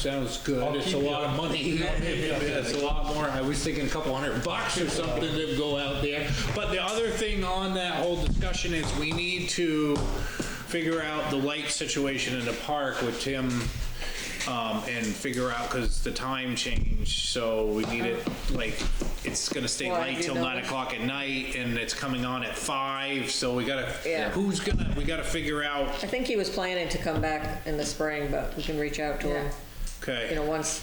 Sounds good. It's a keep lot you- of money. I'll keep you It's a busy. lot more. I was thinking a couple hundred bucks or something to go out there. But the other thing on that whole discussion is we need to figure out the light situation in the park with Tim um, and figure out, because the time changed, so we need it, like, it's gonna stay Well, I light do till know. nine o'clock at night and it's coming on at five, so we gotta, Yeah. who's gonna, we gotta figure out, I think he was planning to come back in the spring, but we can reach out to him, okay. you know, once,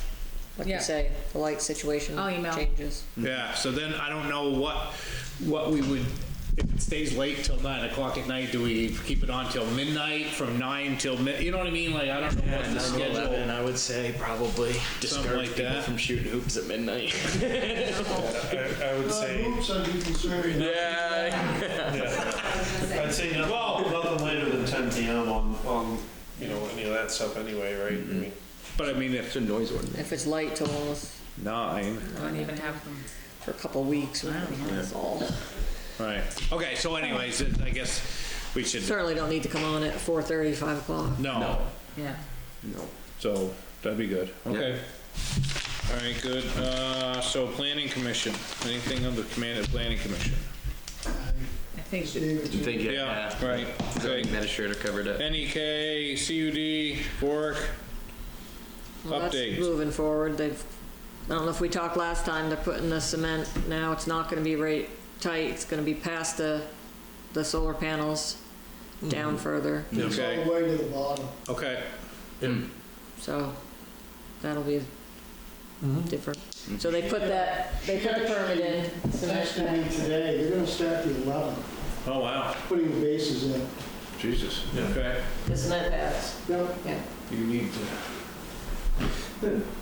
like Yeah. you say, the light situation I'll email. changes. Yeah, so then I don't know what, what we would, if it stays late till nine o'clock at night, do we keep it on till midnight, from nine till mid, you know what I mean? Like, I don't know what the And schedule. I would say probably discourage like people that. from shooting hoops at midnight. I, I would say, Oops, I'd be concerned. Yeah. I'd say no- nothing later than ten PM on, on, you know, any of that stuff anyway, right? I Mm-hmm. mean, But I mean, if, a noise ordinance. If it's light till almost nine, I don't even have them. for a couple of weeks, we that's all. right, okay, so anyways, it- I guess we should, Certainly don't need to come on at 4:30, 5 o'clock. no, Yeah. so that'd be good, okay. All right, good, uh, so planning commission, anything on the command of planning commission? I think David, Think it, Yeah, yeah. right, E Zoning okay. administrator covered it. NEK, CUD, Bork, Well, that's Update. Moving forward, they've, I don't know if we talked last time, they're putting the cement now, it's not gonna be right tight, it's gonna be past the, the solar panels, Mm-hmm. down further, it's all okay, the way to the bottom. okay. so that'll be different. So they put that, they put the permit in, It's actually submit today, they're gonna start the 11th, Oh, wow. putting the bases in. Jesus. Okay. that, the cement pads. Yep, You need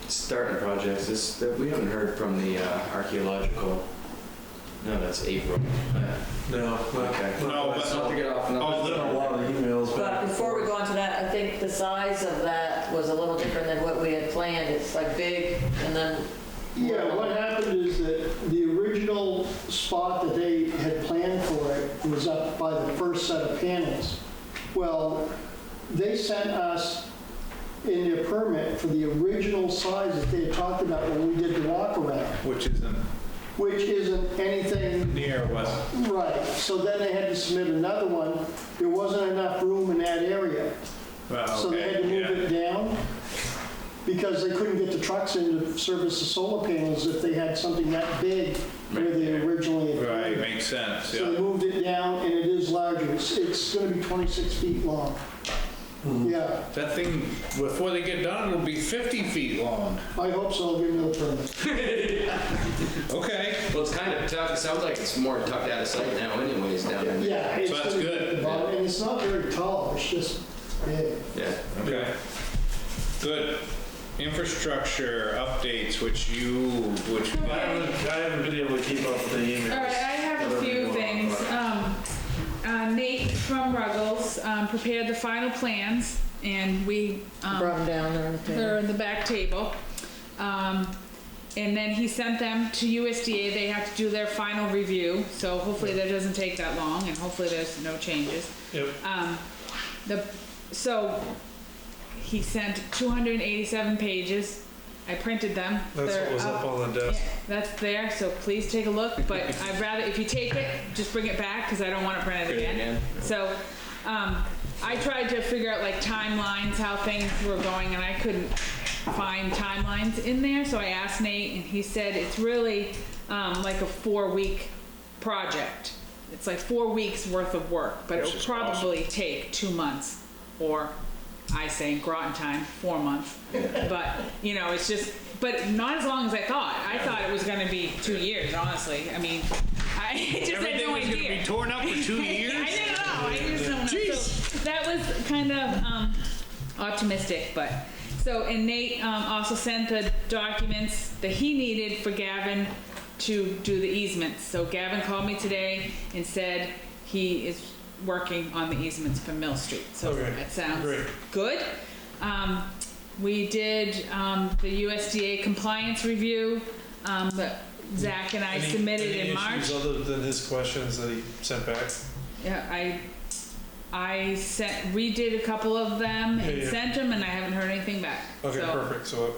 starting projects is that we haven't heard from the uh, archaeological. No, that's April. No. not- Okay. No, not- but- Not to get off. No. I've done Oh, a lot of emails, But but before we go on to that, I think the size of that was a little different than what we had planned, it's like big, and then, yeah, what happened is that the original spot that they had planned for it was up by the first set of panels. Well, they sent us in their permit for the original size that they had talked about when we did the walk around, Which isn't which isn't anything near what? Right, so then they had to submit another one. There wasn't enough room in that area, so they had to move it down because they couldn't get the trucks in to service the solar panels if they had something that big where they originally had. planned. Right, makes sense, So yeah. they moved it down and it is larger. It's, it's gonna be 26 feet long. Yeah, That thing, before they get done, will be 50 feet long. I hope so, I'll give them a permit. Okay. Well, it's kind of tough. It sounds like it's more tucked out of sight now, anyways. Down in there. Yeah. it's So that's gonna be good. at the bottom, And it's not very tall, it's just big. Yeah. Okay. Good. Infrastructure updates, which you, which. I haven't, I haven't been able to keep up with the emails. All right, I have a Whatever you few want, things. but- Um, uh, Nate from Ruggles um, prepared the final plans, and we, brought them um, down there. they're in the back table. Um, And then he sent them to USDA, they have to do their final review, so hopefully that doesn't take that long, and hopefully there's no changes. Yep. Um, the, so, he sent 287 pages. I printed them. That's what They're was up on the Yeah, desk. That's there, so please take a look, but I'd rather, if you take it, just bring it back, because I don't want to print it Print it again. again. So, um, I tried to figure out like timelines, how things were going, and I couldn't find timelines in there, so I asked Nate, and he said it's really, um, like a four-week project. It's like four weeks worth of work, but it'll Which is awesome. probably take two months, or I say in Groton time, four months. But, you know, it's just, but not as long as I thought. I thought it was gonna be two years, honestly. I mean, I just had Everything no was gonna be idea. torn up for two I years? didn't know, I just don't know. So That was kind of, um, optimistic, but, so, and Nate, um, also sent the documents that he needed for Gavin to do the easements. So Gavin called me today and said he is working on the easements for Mill Street, so Okay, that sounds great. good. Um, we did, um, the USDA compliance review, um, that Zach and I Any- submitted any in March. issues Other than his questions that he sent back? Yeah, I I sent, redid a couple of them Yeah, and yeah. sent them, and I haven't heard anything back. Okay, So- perfect, so